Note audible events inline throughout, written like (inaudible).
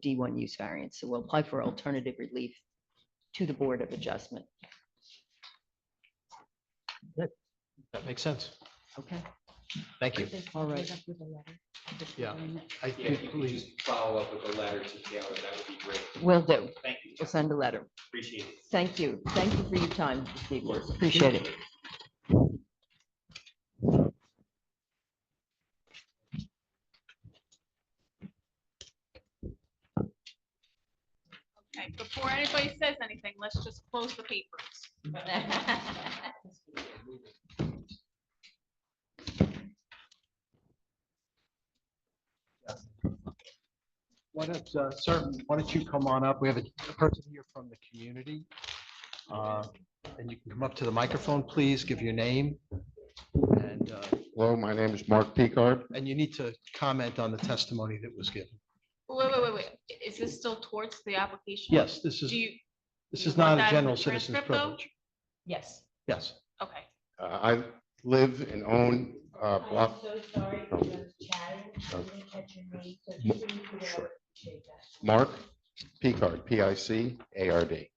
D1 use variance. So we'll apply for alternative relief to the Board of Adjustment. That makes sense. Okay? Thank you. All right. Yeah. I Yeah, if do you could believe, just follow up with a letter to Taylor, that would be great. Will do. Thank you, We'll Jeff. send a letter. appreciate it. Thank you. Thank you for your time this evening. Appreciate it. Okay, before anybody says anything, let's just close the (laughs) papers. why don't, uh, sir, why don't you come on up? We have a a person here from the community. Uh, And you can come up to the microphone, please, give your name. And, uh, Hello, my name is Mark Picard. and you need to comment on the testimony that was given. Wait, wait, wait, wait. Is this still towards the application? Yes, this is, Do you? this you is not want that a in the general citizen's transcript, though? privilege. Yes. Yes. Okay. Uh, I live and own uh, I'm block, so sorry for those chatting. I didn't catch your name, so Mo- please do that. sure. Appreciate that. Mark Picard, P I C A R D.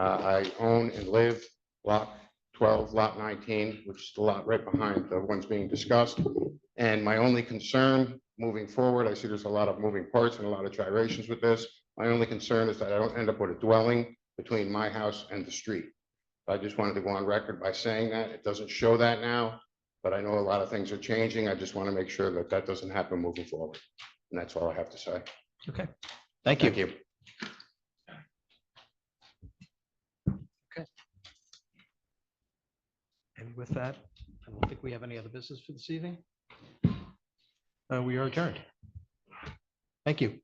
Uh, I own and live block 12, lot 19, which is the lot right behind the ones being discussed. And my only concern moving forward, I see there's a lot of moving parts and a lot of gyrations with this. My only concern is that I don't end up with a dwelling between my house and the street. I just wanted to go on record by saying that. It doesn't show that now, but I know a lot of things are changing. I just want to make sure that that doesn't happen moving forward. And that's all I have to say. Thank you. Thank you. And with that, I don't think we have any other business for this evening. Uh, We are adjourned. Thank you.